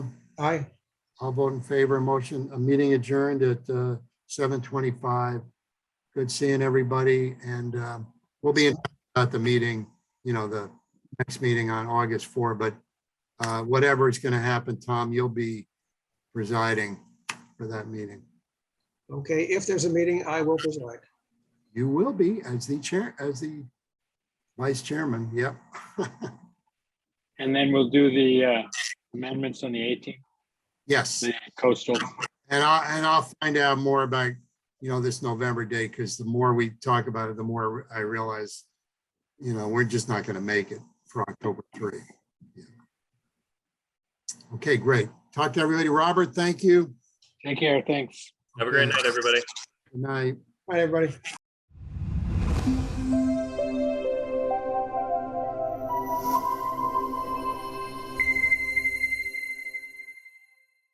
Aye. I'll vote in favor. Motion, a meeting adjourned at uh, seven twenty-five. Good seeing everybody and um, we'll be in at the meeting, you know, the next meeting on August four, but uh, whatever is going to happen, Tom, you'll be presiding for that meeting. Okay, if there's a meeting, I will preside. You will be as the chair, as the vice chairman. Yep. And then we'll do the uh, amendments on the 18th, Yes. the coastal. And I, and I'll find out more about, you know, this November day, because the more we talk about it, the more I realize, you know, we're just not gonna make it for October three. Yeah. Okay, great. Talk to everybody. Robert, thank you. Take care, thanks. Have a great night, everybody. Good night. Bye, everybody.